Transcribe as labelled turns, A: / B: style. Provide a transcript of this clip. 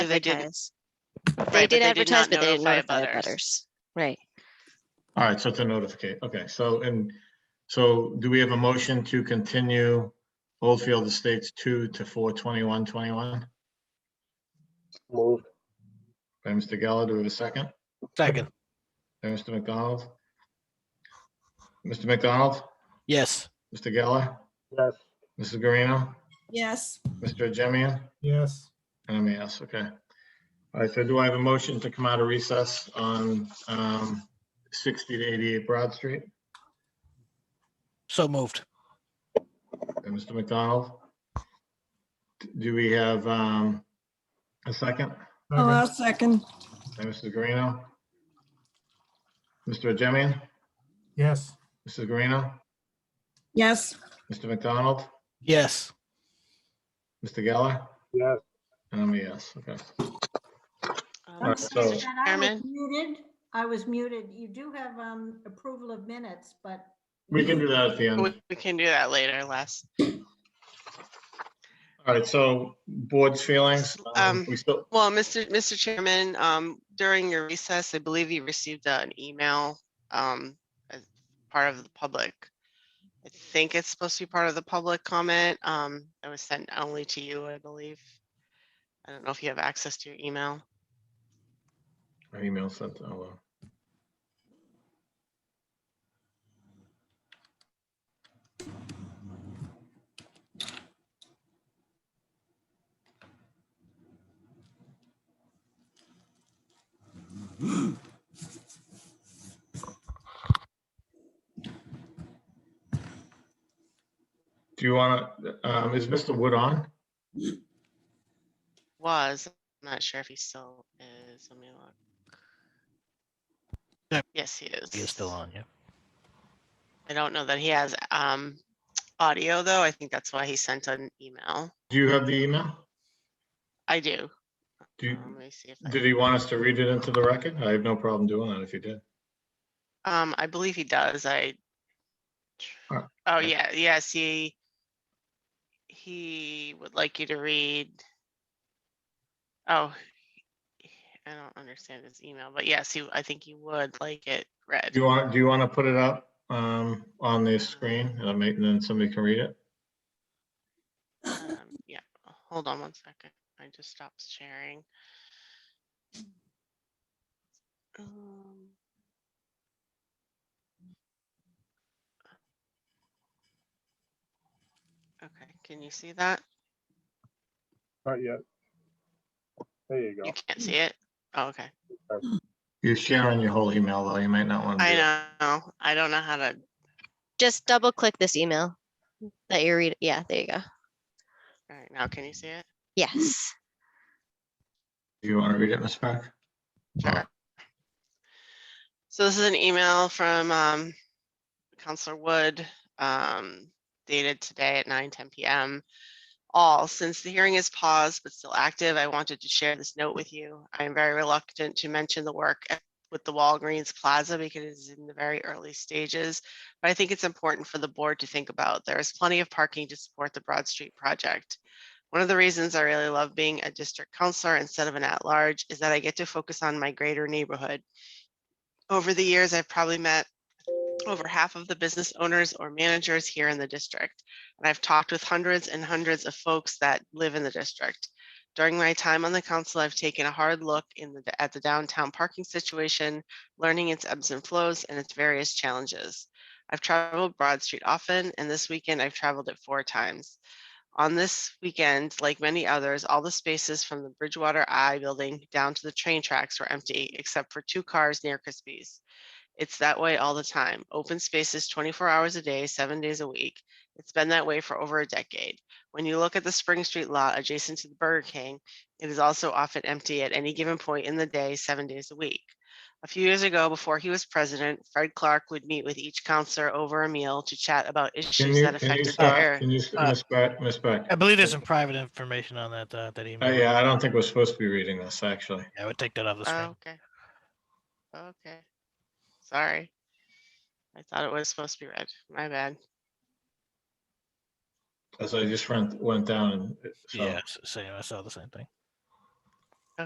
A: they didn't-
B: advertise. They
A: Right, but
B: did
A: they did
B: advertise,
A: not
B: but they didn't
A: notify
B: notify
A: abutters.
B: others. Right.
C: All right, so it's a notification. Okay, so, and so do we have a motion to continue Oldfield Estates two to four twenty-one twenty-one?
D: Move.
C: By Mr. Geller, do we have a second?
D: Second,
C: By Mr. McDonald? Mr. McDonald?
D: yes.
C: Mr. Geller?
D: Yes.
C: Mrs. Garino?
E: yes,
C: Mr. Jemian?
D: Yes.
C: And I'm a yes, okay. All right, so do I have a motion to come out of recess on um, sixty to eighty-eight Broad Street?
D: So moved.
C: By Mr. McDonald? Do we have um, a second?
E: oh, I'll second,
C: By Mrs. Garino? Mr. Jemian?
D: Yes.
C: Mrs. Garino?
E: yes,
C: Mr. McDonald?
D: Yes.
C: Mr. Geller?
D: Yes.
C: And I'm a yes, okay.
A: Um,
C: All right, so,
F: And I was
A: Chairman?
F: muted. I was muted. You do have um, approval of minutes, but
C: we can do that at the end.
A: We we can do that later, Les.
C: All right, so board's feelings, um,
A: Um,
C: we still,
A: Well, Mr. Mr. Chairman, um, during your recess, I believe you received uh, an email, um, as part of the public. I think it's supposed to be part of the public comment. Um, it was sent only to you, I believe. I don't know if you have access to your email.
C: our email sent, oh, well. Do you want to, um, is Mr. Wood on?
A: Was, I'm not sure if he still is. Let me
D: Yeah.
A: look. Yes, he is.
D: You're still on, yeah.
A: I don't know that he has, um, audio though. I think that's why he sent an email.
C: Do you have the email?
A: I do.
C: Do, you-
A: Um, Let me see if I.
C: did he want us to read it into the record? I have no problem doing that if you did.
A: Um, I believe he does. I.
C: Oh,
A: Oh,
C: okay.
A: yeah, yes, he. He would like you to read. Oh. I don't understand his email, but yes, he, I think he would like it read.
C: Do you want, do you want to put it up um, on the screen and I may- and then somebody can read it?
A: Um, Yeah, hold on one second. I just stopped sharing. Um, Okay, can you see that?
G: Not yet. There you go.
A: You can't see it? Oh, Okay,
C: You're sharing your whole email though. You might not want to. do that.
A: I know. I don't know how to,
B: Just double click this email that you read. Yeah, there you go.
A: all right, now can you see it?
B: Yes.
C: Do you want to read it, Ms. Park?
A: Sure. So this is an email from um, Counselor Wood um, dated today at 9, 10 p.m. All, since the hearing is paused but still active, I wanted to share this note with you. I am very reluctant to mention the work at- with the Walgreens Plaza because it is in the very early stages, but I think it's important for the board to think about. There is plenty of parking to support the Broad Street project. One of the reasons I really love being a district counselor instead of an at-large is that I get to focus on my greater neighborhood. Over the years, I've probably met over half of the business owners or managers here in the district. And I've talked with hundreds and hundreds of folks that live in the district. During my time on the council, I've taken a hard look in the, at the downtown parking situation, learning its ebbs and flows and its various challenges. I've traveled Broad Street often, and this weekend I've traveled it four times. On this weekend, like many others, all the spaces from the Bridgewater Eye building down to the train tracks were empty, except for two cars near Crispy's. It's that way all the time. Open spaces 24 hours a day, seven days a week. It's been that way for over a decade. When you look at the Spring Street lot adjacent to the Burger King, it is also often empty at any given point in the day, seven days a week. A few years ago, before he was president, Fred Clark would meet with each counselor over a meal to chat about
C: Can
A: issues
C: you,
A: that
C: can you
A: affected their
C: stop?
A: area.
C: Can you, s- Ms. Park, Ms. Park?
D: I believe there's some private information on that, uh, that
C: Uh,
D: email.
C: Yeah, I don't think we're supposed to be reading this, actually.
D: I would take that off the
A: Oh,
D: screen.
A: Okay. Okay. Sorry. I thought it was supposed to be red. My bad.
C: As I just went, went down and. so-
D: Yeah, s- same, I saw the same thing.